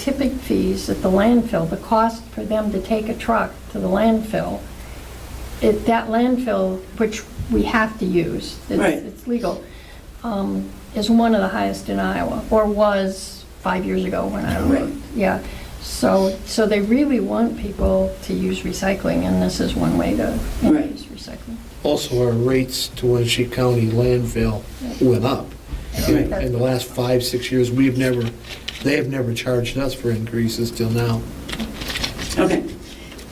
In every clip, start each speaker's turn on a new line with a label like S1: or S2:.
S1: tipping fees at the landfill, the cost for them to take a truck to the landfill, if that landfill, which we have to use,
S2: Right.
S1: it's it's legal, um, is one of the highest in Iowa, or was five years ago when I
S2: Right.
S1: wrote. Yeah, so, so they really want people to use recycling, and this is one way to
S2: Right.
S1: use recycling.
S3: Also, our rates to Wenatchee County landfill went up. In in the last five, six years, we've never, they have never charged us for increases till now.
S2: Okay.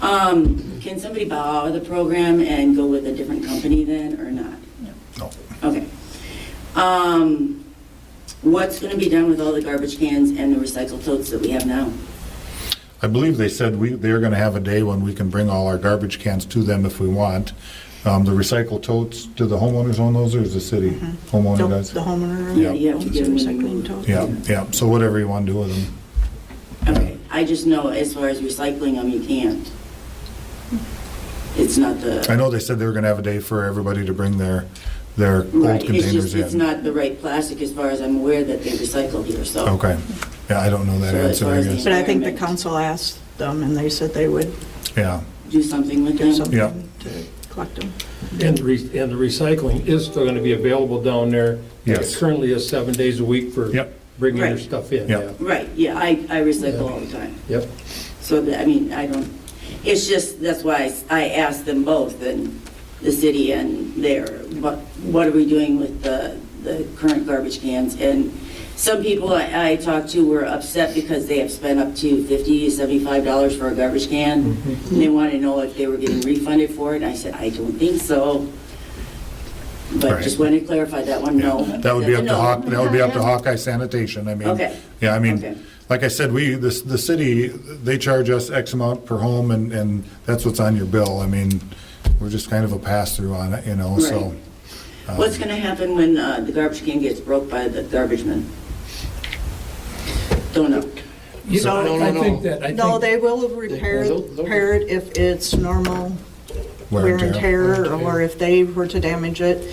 S2: Um, Can somebody bow out of the program and go with a different company then, or not?
S4: No.
S2: Okay. Um, What's going to be done with all the garbage cans and the recycled totes that we have now?
S4: I believe they said we, they're gonna have a day when we can bring all our garbage cans to them if we want. Um, the recycle totes, do the homeowners own those or is the city homeowner
S5: Nope,
S4: does?
S5: The homeowner.
S2: Yeah, you have to
S5: owns
S2: give
S5: the
S2: them the
S5: recycling
S2: move.
S5: tote.
S4: Yeah, yeah, so whatever you wanna do with them.
S2: Okay, I just know as far as recycling them, you can't. It's not
S4: I
S2: the,
S4: know they said they were gonna have a day for everybody to bring their, their old
S2: right, it's just,
S4: containers
S2: it's
S4: in.
S2: not the right plastic as far as I'm aware that they recycle here, so.
S4: Okay, yeah, I don't know that
S2: So as
S4: answer,
S2: far
S4: I
S2: as
S4: guess,
S5: But I think the
S2: Environment.
S5: council asked them, and they said they would
S4: yeah.
S2: Do something with
S5: do
S2: them.
S4: Yeah.
S5: something to collect them.
S6: And the re- and the recycling is still going to be available down there.
S4: Yes.
S6: It Currently is seven days a week for
S4: Yep.
S6: bringing your
S2: Right.
S6: stuff in.
S4: Yep.
S6: yeah.
S2: Right, yeah, I, I recycle all the time.
S6: Yep.
S2: So, that- I mean, I don't, it's just, that's why I s- I asked them both, and the city and there, what, what are we doing with the, the current garbage cans? And some people I, I talked to were upset because they have spent up to 50 75 dollars for a garbage can,
S4: Mm-hmm.
S2: and they wanted to know if they were getting refunded for it, and I said, I don't think so. But
S4: Right.
S2: just wanted to clarify that one, no.
S4: That would be up to
S2: No.
S4: Hawk, that would be up to Hawkeye Sanitation, I mean.
S2: Okay.
S4: Yeah, I
S2: Okay.
S4: mean, like I said, we, the, the city, they charge us X amount per home, and, and that's what's on your bill. I mean, we're just kind of a pass-through on it, you know, so. um,
S2: Right. What's going to happen when uh, the garbage can gets broke by the garbage man? Don't know.
S6: You
S3: So-
S6: know,
S3: No,
S6: I
S3: no,
S6: think
S3: no.
S6: that, I
S5: No,
S6: think,
S5: they will repair,
S3: They'll- they'll-
S5: repair it if it's normal
S4: Wear and
S5: wear and
S4: tear.
S5: tear,
S3: Wear and tear.
S5: or if they were to damage it.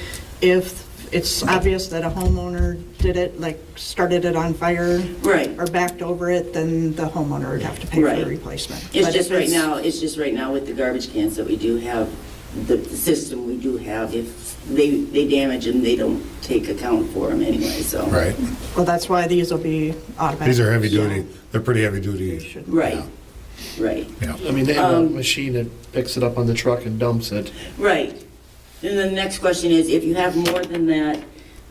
S5: If it's obvious that a homeowner did it, like started it on fire
S2: Right.
S5: or backed over it, then the homeowner would have to pay for
S2: Right.
S5: the replacement.
S2: It's
S5: But
S2: just
S5: if
S2: right now, it's just right now with the garbage cans that we do have, the the system we do have, if they, they damage them, they don't take account for them anyway, so.
S4: Right.
S5: Well, that's why these will be automatic.
S4: These are heavy
S5: so
S4: duty, they're pretty heavy
S5: they
S4: duty,
S5: should-
S2: Right, right,
S4: yeah.
S3: I mean, they have a
S2: Um,
S3: machine that picks it up on the truck and dumps it.
S2: right. And the next question is, if you have more than that,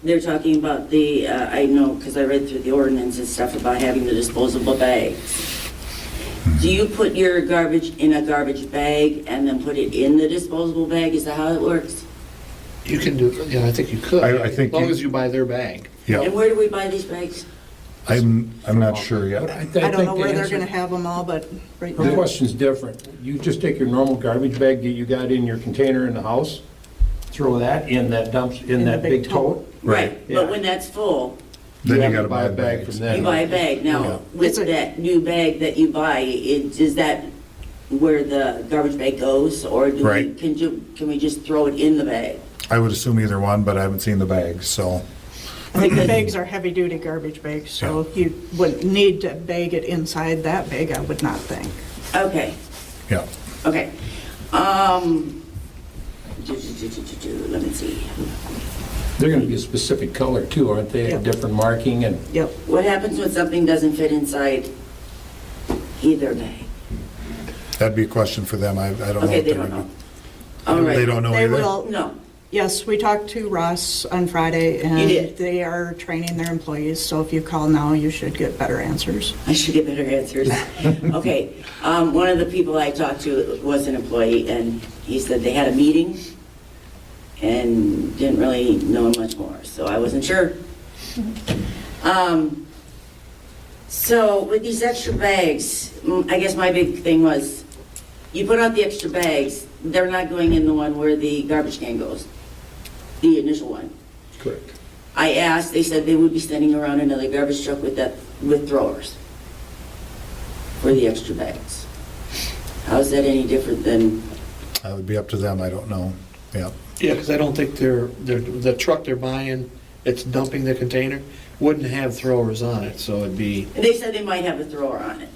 S2: they're talking about the, uh, I know, because I read through the ordinance and stuff about having the disposable bags. Do you put your garbage in a garbage bag and then put it in the disposable bag? Is that how it works?
S3: You can do, yeah, I think you could.
S4: I- I think
S3: As long
S4: you-
S3: as you buy their bag.
S2: And
S4: Yeah,
S2: where do we buy these bags?
S4: I'm, I'm not sure
S6: but I
S4: yet.
S6: th-
S5: I
S6: I
S5: don't
S6: think
S5: know
S6: the
S5: where they're
S6: answer-
S5: gonna have them all, but right
S6: Her
S5: now,
S6: question's different. You just take your normal garbage bag that you got in your container in the house, throw that in that dump, in that big tote.
S4: Right.
S2: But
S6: Yeah.
S2: when that's full,
S4: Then
S6: have
S4: you
S6: to
S4: gotta buy a bag
S6: from
S4: from
S6: them.
S2: you
S6: Yeah.
S2: buy a bag.
S4: Yeah.
S2: Now, with
S5: It's a-
S2: that new bag that you buy, it- is that where the garbage bag goes? Or do we,
S4: Right.
S2: can you, can we just throw it in the bag?
S4: I would assume either one, but I haven't seen the bags, so,
S5: I think the bags are heavy-duty garbage bags, so you wouldn't need to bag it inside that bag, I would not think.
S2: Okay,
S4: yeah.
S2: okay. Um, do, do, do, do, do, do, let me see.
S6: They're going to be a specific color too, aren't they?
S5: Yeah.
S6: Different marking and,
S5: Yep,
S2: What happens when something doesn't fit inside either bag?
S4: That'd be a question for them, I, I don't know.
S2: Okay,
S4: what
S2: they
S4: they're
S2: don't know.
S4: gonna-
S2: All right.
S4: They don't know
S5: They
S4: either?
S5: will-
S2: No,
S5: yes, we talked to Ross on Friday,
S2: You did.
S5: and they are training their employees, so if you call now, you should get better answers.
S2: I should get better answers. Okay, um, one of the people I talked to was an employee, and he said they had a meeting and didn't really know much more, so I wasn't sure. Um, so with these extra bags, mm, I guess my big thing was, you put out the extra bags, they're not going in the one where the garbage can goes, the initial one.
S6: correct.
S2: I asked, they said they would be sending around another garbage truck with that, with throwers for the extra bags. How is that any different than,
S4: That would be up to them, I don't know, yeah.
S3: Yeah, because I don't think they're, they're, the truck they're buying it's dumping the container, wouldn't have throwers on it, so it'd be.
S2: They said they might have a thrower on it.